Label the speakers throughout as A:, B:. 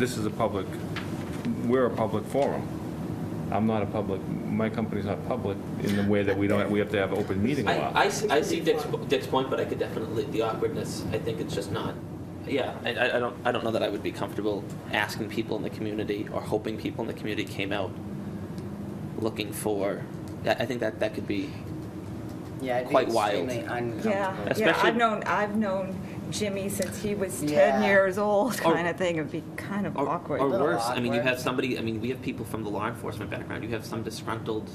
A: This is a public, we're a public forum. I'm not a public, my company's not public in the way that we don't, we have to have open meeting law.
B: I, I see, I see Dick's, Dick's point, but I could definitely, the awkwardness, I think it's just not, yeah, I, I I don't, I don't know that I would be comfortable asking people in the community or hoping people in the community came out looking for, I, I think that, that could be,
C: Yeah, it'd be
B: Quite wild.
C: extremely uncomfortable.
D: Yeah, yeah,
B: Especially-
D: I've known, I've known Jimmy since he was
C: Yeah.
D: ten years old,
B: Or-
D: kind of thing, it'd be kind of
B: or, or
D: awkward.
C: little
B: worse, I mean, you
C: awkward.
B: have somebody, I mean, we have people from the law enforcement background, you have some disgruntled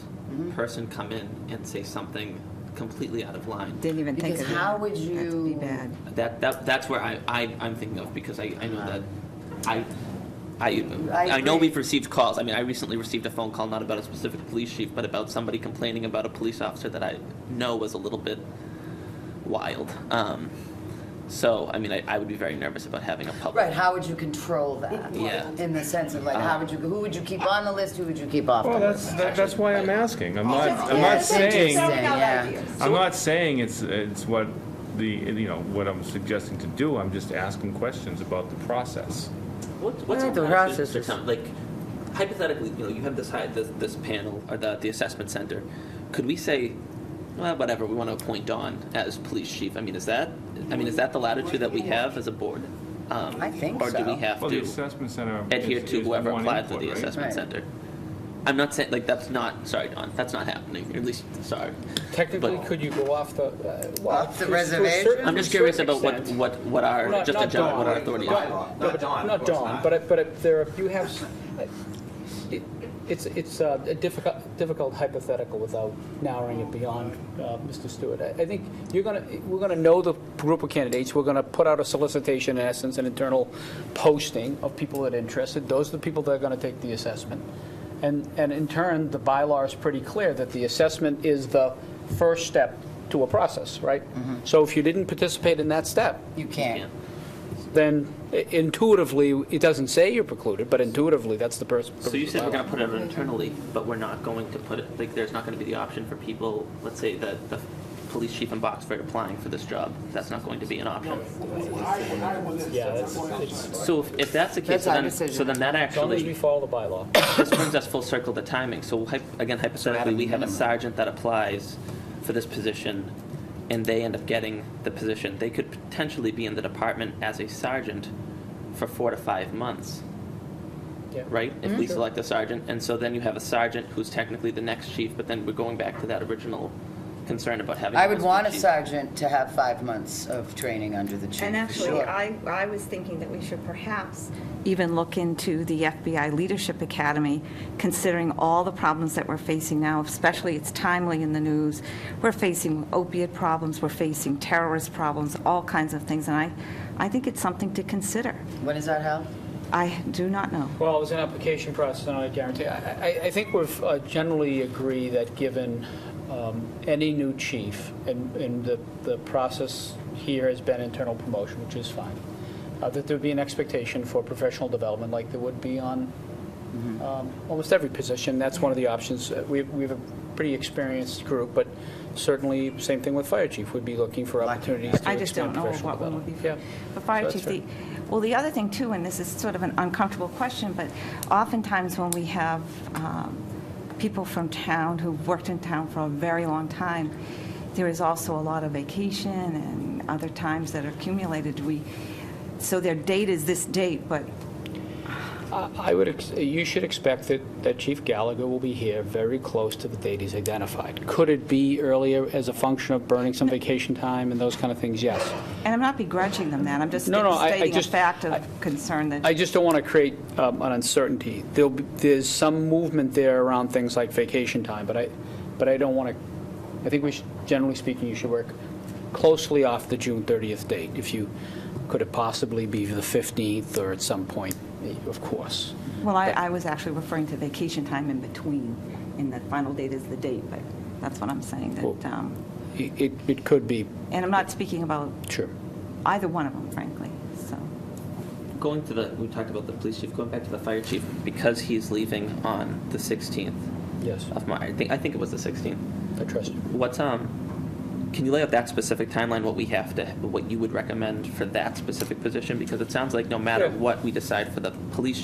B: person come in and say something completely out of line.
D: Didn't even think of
C: Because
D: that.
C: how would
D: That'd be
C: you-
D: bad.
B: That, that, that's where I, I, I'm thinking of, because I, I know that, I, I,
C: I
B: I know
C: agree.
B: we've received calls, I mean, I recently received a phone call, not about a specific police chief, but about somebody complaining about a police officer that I know was a little bit wild. Um, so, I mean, I, I would be very nervous about having a public.
C: Right, how would you control that?
B: Yeah. Uh,
C: In the sense of like, how would you, who would you keep on the list, who would you keep off the
A: Well, that's,
C: list?
A: that- that's why I'm asking. I'm not, I'm
C: Yeah,
A: not
C: that's interesting,
A: saying,
C: yeah.
A: I'm not saying it's, it's what the, you know, what I'm suggesting to do. I'm just asking questions about the process.
B: What, what's
E: Yeah,
B: a
E: the
B: process
E: process
B: for
E: is-
B: some- like hypothetically, you know, you have this high, this, this panel or the the assessment center. Could we say, well, whatever, we want to appoint Don as police chief? I mean, is that I mean, is that the latitude that we have as a board? Um,
C: I think
B: or do
C: so.
B: we have
A: Well, the
B: to
A: assessment center.
B: adhere
A: is-
B: to
A: is
B: whoever
A: one
B: applied for
A: input,
B: the
A: right?
B: assessment
C: Right.
B: center? I'm not saying like that's not sorry, Don. That's not happening. At least sorry.
E: Technically,
B: But-
E: could you go off the, uh, well,
C: Off the
E: to a certain-
C: reservation?
E: to a
B: I'm just
E: certain
B: curious about what
E: extent.
B: what what our
E: Not-
B: just
E: not
B: in general
E: Dawn.
B: what our authority
E: Right.
B: is.
E: No,
F: Not
E: but-
F: Dawn, of
E: Not
F: course
E: Dawn,
F: not.
E: but, it- but it- there, are- you have, s- it- it's, it's uh, a difficult, difficult hypothetical without narrowing it beyond uh, Mr. Stewart. I I think you're gonna, we're gonna know the group of candidates, we're gonna put out a solicitation, in essence, an internal posting of people that are interested. Those are the people that are gonna take the assessment. And, and in turn, the bylaw is pretty clear that the assessment is the first step to a process, right?
F: Mm-hmm.
E: So if you didn't participate in that step,
C: You
B: Yeah.
C: can't.
E: then intuitively, it doesn't say you're precluded, but intuitively, that's the person.
B: So you said we're gonna put it internally, but we're not going to put it, like, there's not gonna be the option for people, let's say that the police chief in Boxford applying for this job, that's not going to be an option.
E: Yeah, that's, it's, as
B: So if, if that's the case,
C: That's our
B: so then,
C: decision.
B: so then that
E: long as we
B: actually,
E: follow the bylaw.
B: this brings us full circle to timing, so hy- again hypothetically, we have a sergeant that applies for this position, and they end up getting the position, they could potentially be in the department as a sergeant for four to five months.
E: Yeah.
B: right? If
C: Mm-hmm.
B: we select a sergeant, and so then you have a sergeant who's technically the next chief, but then we're going back to that original concern about having.
C: I would
B: multiple
C: want a
B: chiefs.
C: sergeant to have five months of training under the chief.
D: And
C: for
D: actually,
C: sure.
D: I, I was thinking that we should perhaps even look into the FBI Leadership Academy, considering all the problems that we're facing now, especially it's timely in the news. We're facing opiate problems, we're facing terrorist problems, all kinds of things, and I, I think it's something to consider.
C: When is that held?
D: I do not know.
E: Well, it was an application process, and I guarantee, I, I- I think we've uh, generally agree that given um, any new chief, and, and the, the process here has been internal promotion, which is fine, uh, that there'd be an expectation for professional development like there would be on um, almost every position. That's one of the options. Uh, We, we have a pretty experienced group, but certainly, same thing with fire chief, we'd be looking for opportunities to
D: I just don't
E: expand
D: know
E: professional
D: what one would
E: development.
D: be
E: Yeah.
D: for. The fire
E: that's
D: chief,
E: fair.
D: the, well, the other thing too, and this is sort of an uncomfortable question, but oftentimes when we have um, people from town who've worked in town for a very long time, there is also a lot of vacation and other times that are accumulated. We, so their date is this date, but
E: I Uh, I would, ex- you should expect that, that Chief Gallagher will be here very close to the date he's identified. Could it be earlier as a function of burning some vacation time and those kind of things? Yes.
D: And I'm not begrudging them that, I'm just
E: No, no, I- I
D: stating a
E: just-
D: fact
E: I-
D: of concern that.
E: I just don't want to create um, an uncertainty. There'll, be- there's some movement there around things like vacation time, but I, but I don't want to, I think we should, generally speaking, you should work closely off the June 30th date. If you, could it possibly be the 15th or at some point, of course.
D: Well, I, I was actually referring to vacation time in between, and the final date is the date, but that's what I'm saying,
E: Well-
D: that, um,
E: It, it- it could be,
D: and I'm not speaking about
E: sure.
D: either one of them, frankly, so.
B: Going to the, we talked about the police chief, going back to the fire chief, because he's leaving on the sixteenth
E: Yes,
B: of March, I think, I think it was the sixteenth.
E: I trust you.
B: What's, um, can you lay out that specific timeline, what we have to, what you would recommend for that specific position? Because it sounds like no matter
E: Sure.
B: what we decide for the police chief,